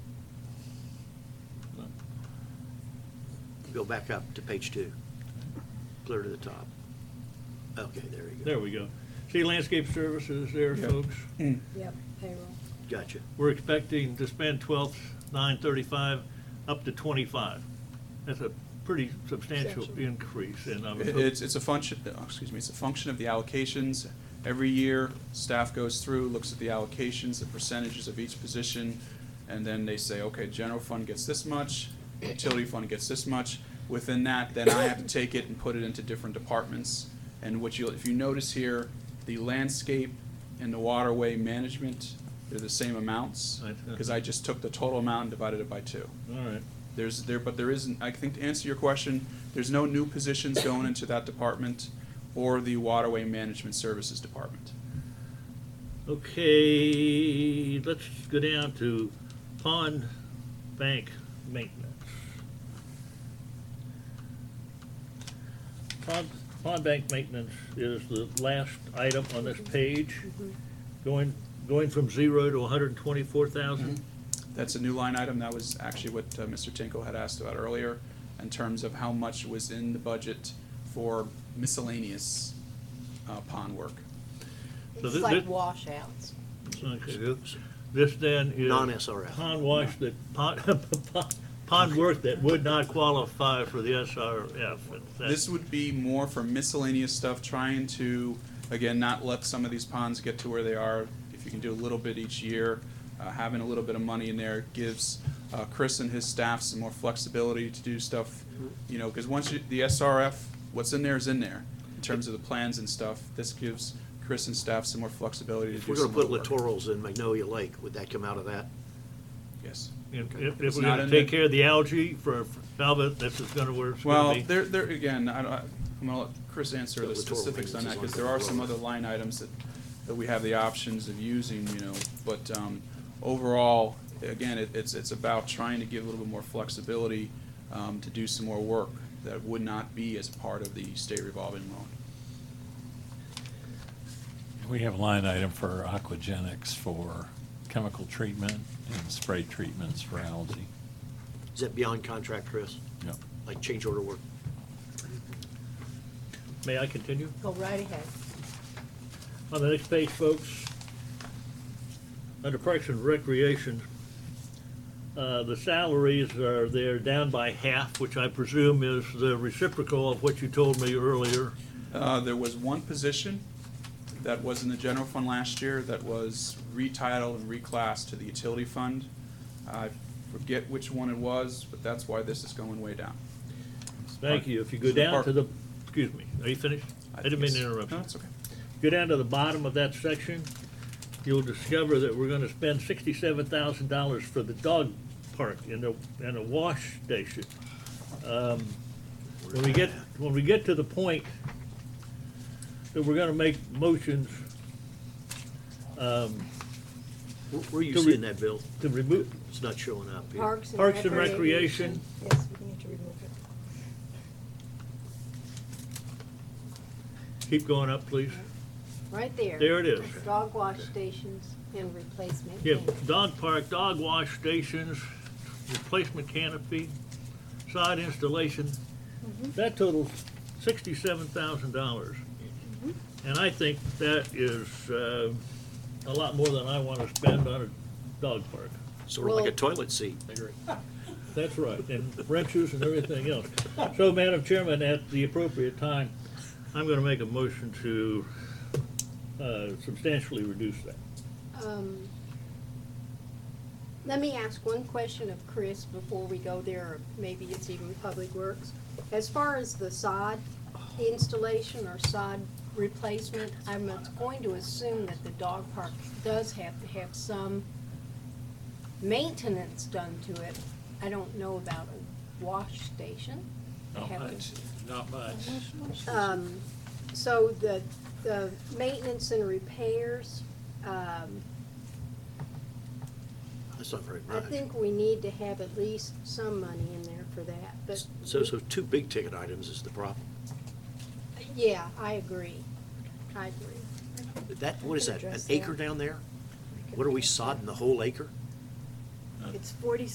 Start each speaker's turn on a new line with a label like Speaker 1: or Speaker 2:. Speaker 1: Go back up to page two, clear to the top. Okay, there you go.
Speaker 2: There we go. See landscape services there, folks.
Speaker 3: Yep, payroll.
Speaker 1: Gotcha.
Speaker 2: We're expecting to spend twelve, nine thirty-five, up to twenty-five. That's a pretty substantial
Speaker 3: Substantial.
Speaker 2: increase uh, and I was
Speaker 4: It-
Speaker 2: hoping-
Speaker 4: It's, it's a function, oh, excuse me, it's a function of the allocations. Every year, staff goes through, looks at the allocations, the percentages of each position, and then they say, okay, general fund gets this much, utility fund gets this much. Within that, then I have to take it and put it into different departments. And what you, if you notice here, the landscape and the waterway management, they're the same amounts,
Speaker 2: Right, huh.
Speaker 4: because I just took the total amount and divided it by two.
Speaker 2: All right.
Speaker 4: There's there, but there isn't, I think to answer your question, there's no new positions going into that department or the Waterway Management Services Department.
Speaker 2: Okay, let's go down to pond bank maintenance. Pond, pond bank maintenance is the last item on this page,
Speaker 5: Mm-hmm.
Speaker 2: going, going from zero to hundred and twenty-four thousand.
Speaker 4: That's a new line item. That was actually what uh, Mr. Tinkle had asked about earlier in terms of how much was in the budget for miscellaneous uh, pond work.
Speaker 2: So
Speaker 5: It's
Speaker 2: thi-
Speaker 5: like
Speaker 2: thi-
Speaker 5: washouts.
Speaker 2: This then is.
Speaker 1: Non-SRF.
Speaker 2: Pond wash that, pond, pond- pond work that would not qualify for the SRF.
Speaker 4: This would be more for miscellaneous stuff, trying to, again, not let some of these ponds get to where they are. If you can do a little bit each year, uh, having a little bit of money in there gives uh, Chris and his staff some more flexibility to do stuff, you know, because once you, the SRF, what's in there is in there, in terms of the plans and stuff. This gives Chris and staff some more flexibility to
Speaker 1: If
Speaker 4: do
Speaker 1: we're gonna
Speaker 4: some
Speaker 1: put
Speaker 4: of the work.
Speaker 1: littorals in Magnolia Lake, would that come out of that?
Speaker 4: Yes.
Speaker 2: If, if- if
Speaker 4: It's
Speaker 2: we're
Speaker 4: not
Speaker 2: gonna
Speaker 4: in
Speaker 2: take
Speaker 4: the-
Speaker 2: care of the algae for for Falmouth, this is gonna where it's
Speaker 4: Well,
Speaker 2: gonna be.
Speaker 4: there, there, again, I don't, I'm gonna let Chris answer the
Speaker 1: But rhetorical
Speaker 4: specifics on
Speaker 1: maintenance
Speaker 4: that,
Speaker 1: is
Speaker 4: because
Speaker 1: on
Speaker 4: there are some
Speaker 1: control.
Speaker 4: other line items that, that we have the options of using, you know, but, um, overall, again, it, it's, it's about trying to give a little bit more flexibility, um, to do some more work that would not be as part of the state revolving loan.
Speaker 6: We have a line item for aquagenics for chemical treatment and spray treatments for algae.
Speaker 1: Is that beyond contract, Chris?
Speaker 6: Yep.
Speaker 1: Like change order work?
Speaker 2: May I continue?
Speaker 5: Go right ahead.
Speaker 2: On the next page, folks, under Parks and Recreation, uh, the salaries are, they're down by half, which I presume is the reciprocal of what you told me earlier.
Speaker 4: Uh, there was one position that was in the general fund last year that was retitled and reclassed to the utility fund. I forget which one it was, but that's why this is going way down.
Speaker 2: Thank you. If you go
Speaker 4: So the
Speaker 2: down
Speaker 4: park-
Speaker 2: to the, excuse me, are you finished? I didn't mean to
Speaker 4: it's-
Speaker 2: interrupt you.
Speaker 4: No, it's okay.
Speaker 2: Go down to the bottom of that section, you'll discover that we're gonna spend sixty-seven thousand dollars for the dog park and the, and a wash station. Um, When we get, when we get to the point that we're gonna make motions, um,
Speaker 1: Where- Where are you
Speaker 2: Can we-
Speaker 1: seeing that, Bill?
Speaker 2: to remove,
Speaker 1: It's not showing up here.
Speaker 3: Parks and
Speaker 2: Parks and
Speaker 3: Recreation.
Speaker 2: Recreation.
Speaker 3: Yes, we need to remove it.
Speaker 2: keep going up, please.
Speaker 5: Right there.
Speaker 2: There it is.
Speaker 5: Dog wash stations and replacement.
Speaker 2: Yeah,
Speaker 5: cans.
Speaker 2: dog park, dog wash stations, replacement canopy, side installation. That totals sixty-seven thousand dollars. And I think that is, uh, a lot more than I wanna spend on a dog park.
Speaker 1: Sort of like a
Speaker 5: Well-
Speaker 1: toilet seat.
Speaker 2: That's right, and wrenches and everything else. So, Madam Chairman, at the appropriate time, I'm gonna make a motion to, uh, substantially reduce that.
Speaker 5: Um, Let me ask one question of Chris before we go there, or maybe it's even Public Works. As far as the sod installation or sod replacement, I'm going to assume that the dog park does have to have some maintenance done to it. I don't know about a wash station. They have to-
Speaker 6: not much.
Speaker 5: um, So the, the maintenance and repairs, um,
Speaker 1: That's not very
Speaker 5: I
Speaker 1: much.
Speaker 5: think we need to have at least some money in there for that, but,
Speaker 1: So, so two big ticket items is the problem.
Speaker 5: yeah, I agree. I agree.
Speaker 1: That, what is that, an
Speaker 3: Address that.
Speaker 2: Uh.
Speaker 1: acre down there? What are we sodding, the whole acre?
Speaker 5: It's forty